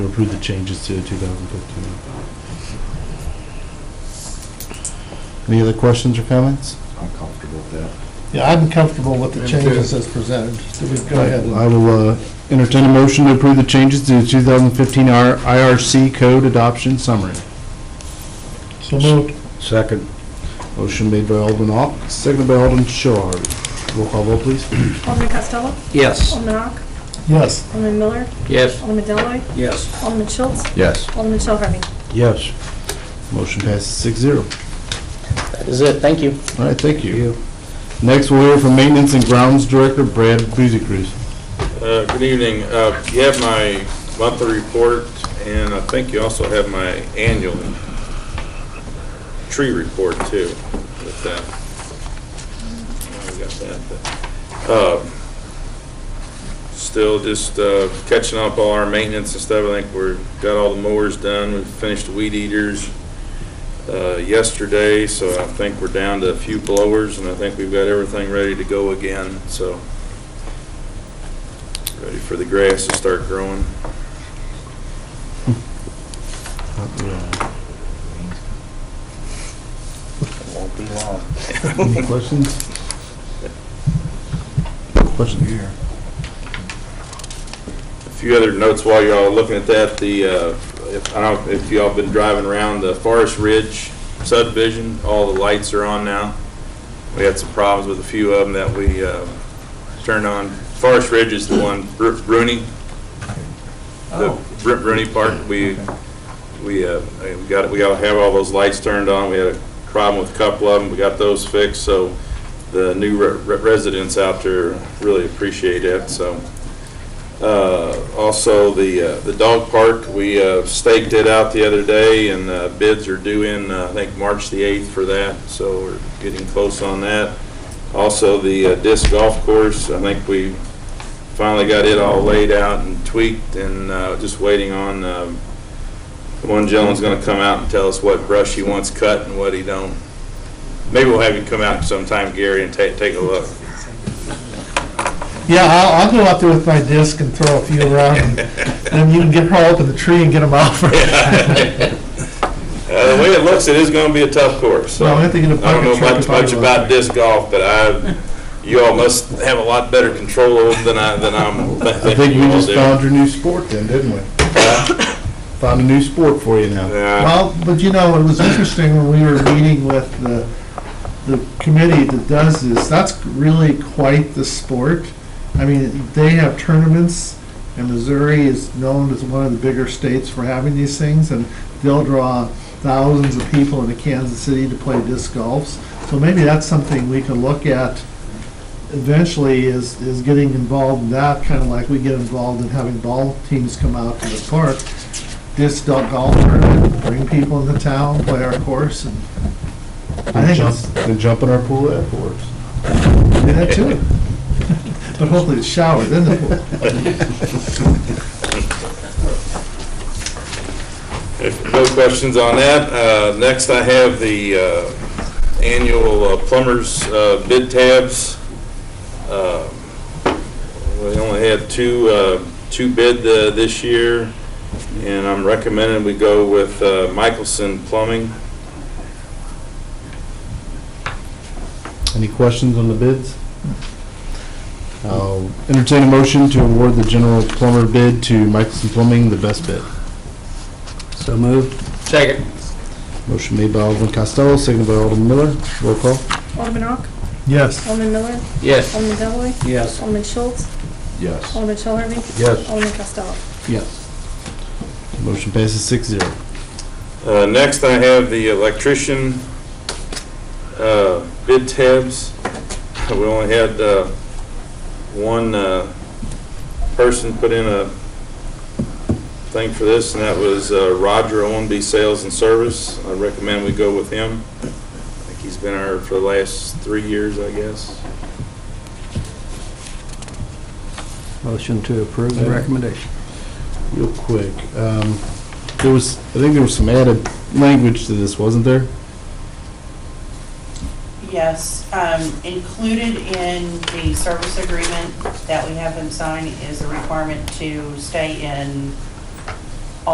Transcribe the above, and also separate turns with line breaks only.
Approve the changes to 2015.
Any other questions or comments?
I'm comfortable with that.
Yeah, I'm comfortable with the
Me
changes as presented. Do we go ahead? and-
I will uh, entertain a motion to approve the changes to the 2015 R- IRC Code Adoption Summary.
So moved.
Second.
Motion made by Alderman Ock, seconded by Alderman Shaw. Roll call vote, please.
Alderman Costello.
Yes.
Alderman Ock.
Yes.
Alderman Miller.
Yes.
Alderman Deloy,
Yes.
Alderman Schultz.
Yes.
Alderman Shell Harvey.
Yes.
Motion passes six zero.
That is it, thank you.
All right, thank you. Next, we'll hear from Maintenance and Grounds Director Brad Buzikris.
Uh, Good evening. Uh, You have my monthly report, and I think you also have my annual tree report, too, with that. I got that, but, uh, Still just uh, catching up all our maintenance and stuff. I think we're, got all the mowers done, we finished the weed eaters uh, yesterday, so I think we're down to a few blowers, and I think we've got everything ready to go again, so ready for the grass to start growing.
Won't be long.
Any questions? Questions here?
A few other notes while y'all are looking at that, the, uh, if, I don't, if y'all been driving around the Forest Ridge subdivision, all the lights are on now. We had some problems with a few of them that we uh, turned on. Forest Ridge is the one, Bru- Bruni, the Bru- Bruni part, we, we, uh, we got, we gotta have all those lights turned on. We had a problem with a couple of them, we got those fixed, so the new re- re- residents out there really appreciate it, so. Uh, Also, the, uh, the dog park, we uh, staked it out the other day, and uh, bids are due in, uh, I think, March the 8th for that, so we're getting close on that. Also, the uh, disc golf course, I think we finally got it all laid out and tweaked, and uh, just waiting on, um, one gentleman's gonna come out and tell us what brush he wants cut and what he don't. Maybe we'll have him come out sometime, Gary, and take, take a look.
Yeah, I'll, I'll go out there with my disc and throw a few around, and then you can get her up in the tree and get them out.
Uh, the way it looks, it is gonna be a tough course, so.
Well, I have to get a
I don't
bucket
know
truck
much,
if I
much
go.
about disc golf, but I, you all must have a lot better control over it than I, than I'm
I think
thinking
we
you all
just
do.
found your new sport then, didn't we? Found a new sport for you now.
Yeah,
Well, but you know, it was interesting when we were meeting with the, the committee that does this, that's really quite the sport. I mean, they have tournaments, and Missouri is known as one of the bigger states for having these things, and they'll draw thousands of people into Kansas City to play disc golfs. So maybe that's something we can look at eventually is, is getting involved in that, kind of like we get involved in having ball teams come out to the park. Disc golf tournament, bring people into town, play our course, and I
Then
think
jump,
it's,
then jump in our pool afterwards.
do that too. But hopefully it's showered, then the pool.
if no questions on that, uh, next I have the, uh, annual uh, plumbers, uh, bid tabs. Uh, We only had two, uh, two bid, uh, this year, and I'm recommending we go with, uh, Michelson Plumbing.
Any questions on the bids? I'll entertain a motion to award the general plumber bid to Michelson Plumbing, the best bid.
So moved. Second.
Motion made by Alderman Costello, seconded by Alderman Miller. Roll call.
Alderman Ock.
Yes.
Alderman Miller.
Yes.
Alderman Deloy,
Yes.
Alderman Schultz.
Yes.
Alderman Shell Harvey.
Yes.
Alderman Costello.
Yes. Motion passes six zero.
Uh, Next, I have the electrician uh, bid tabs. We only had uh, one uh, person put in a thing for this, and that was uh, Roger Owenby Sales and Service. I recommend we go with him. I think he's been our, for the last three years, I guess.
Motion to approve the recommendation.
Real quick, um, there was, I think there was some added language to this, wasn't there?
Yes, um, included in the service agreement that we have them sign is a requirement to stay in